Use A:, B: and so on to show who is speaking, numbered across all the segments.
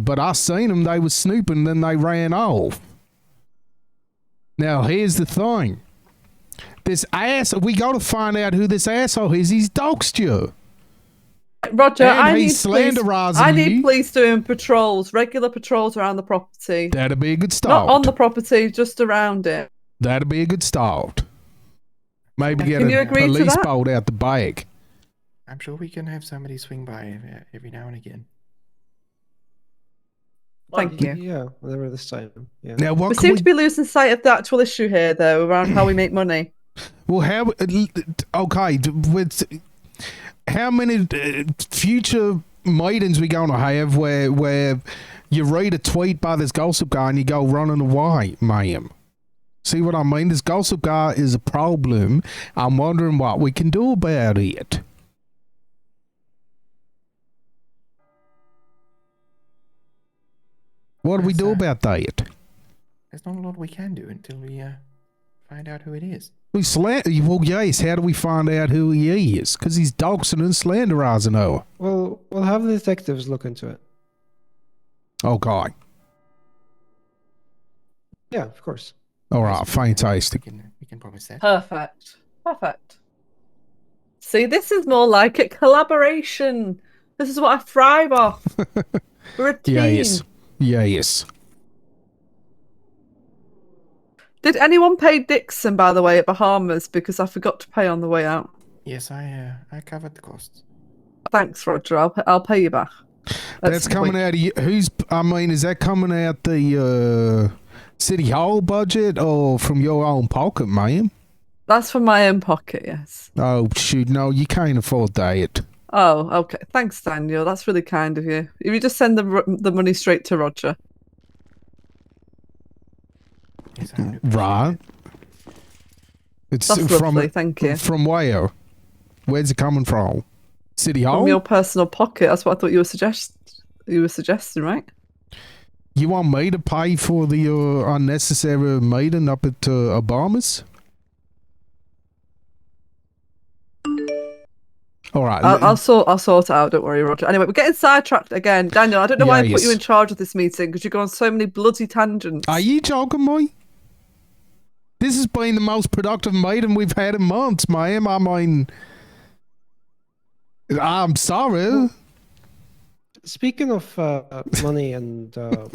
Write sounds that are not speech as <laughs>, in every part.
A: but I seen them. They was snooping, then they ran off. Now here's the thing: this ass. We got to find out who this asshole is. He's doxed you.
B: Roger,
A: And
B: I need
A: he's
B: police.
A: slanderising
B: I need
A: you.
B: police doing patrols, regular patrols around the property,
A: That'd be a good
B: not
A: start.
B: on the property, just around it.
A: That'd be a good start. Maybe get
B: Can you
A: a
B: agree to
A: police
B: that?
A: boat out the back.
C: I'm sure we can have somebody swing by ev- every now and again.
B: Thank you.
D: Yeah, whatever this time. Yeah.
A: Now
B: We
A: what can
B: seem
A: we
B: to be losing sight of the actual issue here, though, around how we make money.
A: Well, how? Okay, d- with how many uh, future meetings we gonna have where where you read a tweet by this gossip guy and you go running away, ma'am? See what I mean? This gossip guy is a problem. I'm wondering what we can do about it. What do we do
C: Yes, sir.
A: about that?
C: There's not a lot we can do until we uh, find out who it is.
A: We slander. Well, yes. How do we find out who he is? Because he's doxing and slanderizing her.
D: Well, we'll have the detectives look into it.
A: Okay.
D: Yeah, of course.
A: All
C: Yes,
A: right.
C: we can-
A: Fantastic.
C: We can, we can promise
B: <clears throat>
C: that.
B: Perfect. Perfect. See, this is more like a collaboration. This is what I
A: <laughs>
B: thrive off. We're a team.
A: Yes. Yes.
B: Did anyone pay Dixon, by the way, at Bahamas? Because I forgot to pay on the way out.
C: Yes, I uh, I covered the costs.
B: Thanks, Roger. I'll, I'll pay you back.
A: That's coming out of you. Who's? I mean, is that coming out the uh, city hall budget or from your own pocket, ma'am?
B: That's from my own pocket, yes.
A: Oh shoot! No, you can't afford that.
B: Oh, okay. Thanks, Daniel. That's really kind of you. If you just send the, ro- the money straight to Roger.
C: Yes,
A: Mm-hmm.
C: I do.
A: Right. It's
B: That's
A: from
B: lovely. Thank you.
A: from where? Where's it coming from? City hall.
B: From your personal pocket. That's what I thought you were suggest you were suggesting, right?
A: You want me to pay for the uh, unnecessary meeting up at uh, Obama's? All right.
B: I'll, I'll sort I'll sort it out. Don't worry, Roger. Anyway, we're getting sidetracked again, Daniel. I don't know why I put you
A: Yes.
B: in charge of this meeting because you go on so many bloody tangents.
A: Are you joking me? This has been the most productive meeting we've had in months, ma'am. I mean, I'm sorry.
D: Speaking of uh, money and um,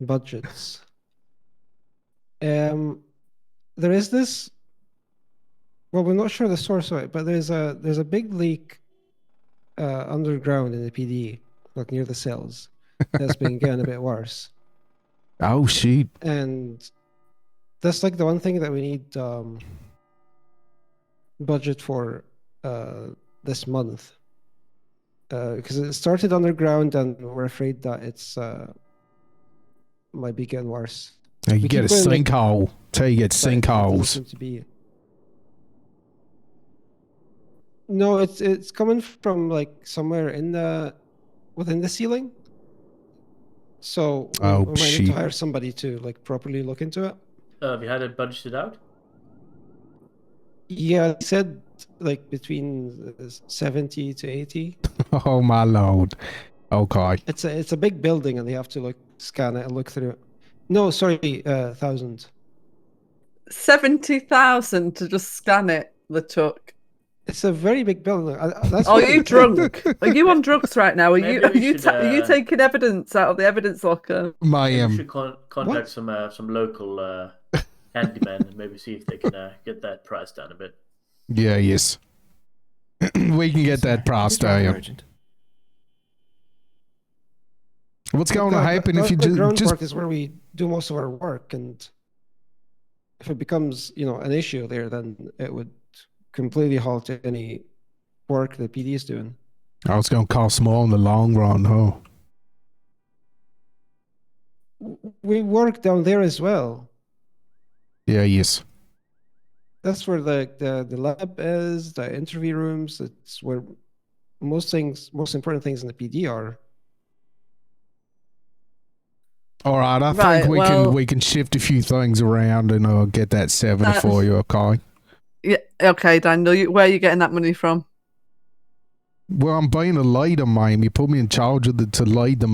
D: budgets, um, there is this. Well, we're not sure the source of it, but there's a there's a big leak uh, underground in the PD, like near the cells, that's been getting a bit worse.
A: Oh, shit.
D: and that's like the one thing that we need um budget for uh this month uh because it started underground and we're afraid that it's uh might be getting worse
A: Now you
D: We
A: get a
D: keep going like-
A: sinkhole. Tell you get
D: but it doesn't
A: sinkholes.
D: seem to be no it's it's coming from like somewhere in the within the ceiling so we-
A: Oh,
D: we might need
A: shit.
D: to hire somebody to like properly look into it
E: Uh, have you had it budgeted out?
D: Yeah, I said like between uh, seventy to eighty.
A: <laughs> Oh, my lord. Okay.
D: It's a it's a big building, and they have to like scan it and look through. it. No, sorry, uh, thousand.
B: Seventy thousand to just scan it. The took.
D: It's a very big building. I, I- that's
B: Are
D: what I
B: Oh,
A: <laughs>
B: you
D: said. <laughs>
B: drunk? Are you on drugs right now? Are you
E: Maybe
B: are
E: we
B: you
E: should,
B: ta- are you
E: uh,
B: taking evidence out of the evidence locker?
E: Maybe we
A: Ma'am.
E: should con- contact some uh, some local uh, handyman and maybe see if they can uh, get that price down a bit.
A: Yeah, yes. <clears throat> we can get
C: Yes, sir.
A: that uh, price
C: It's rather
A: down.
C: urgent.
A: What's
D: But
A: going to
D: the-
A: happen
D: the
A: if you ju-
D: underground
A: just
D: Park is where we do most of our work, and if it becomes you know an issue there, then it would completely halt any work the PD is doing.
A: Oh, it's going to cost more in the long run, huh?
D: W- We work down there as well.
A: Yeah, yes.
D: that's where the, the the lab is the interview rooms it's where most things most important things in the pd are
A: All right, I
B: Right,
A: think we
B: well-
A: can we can shift a few things around and uh, get that seven
B: That's-
A: for you, okay?
B: Yeah. Okay, Daniel. You, where are you getting that money from?
A: Well, I'm being a leader, ma'am. You put me in charge of the to lead the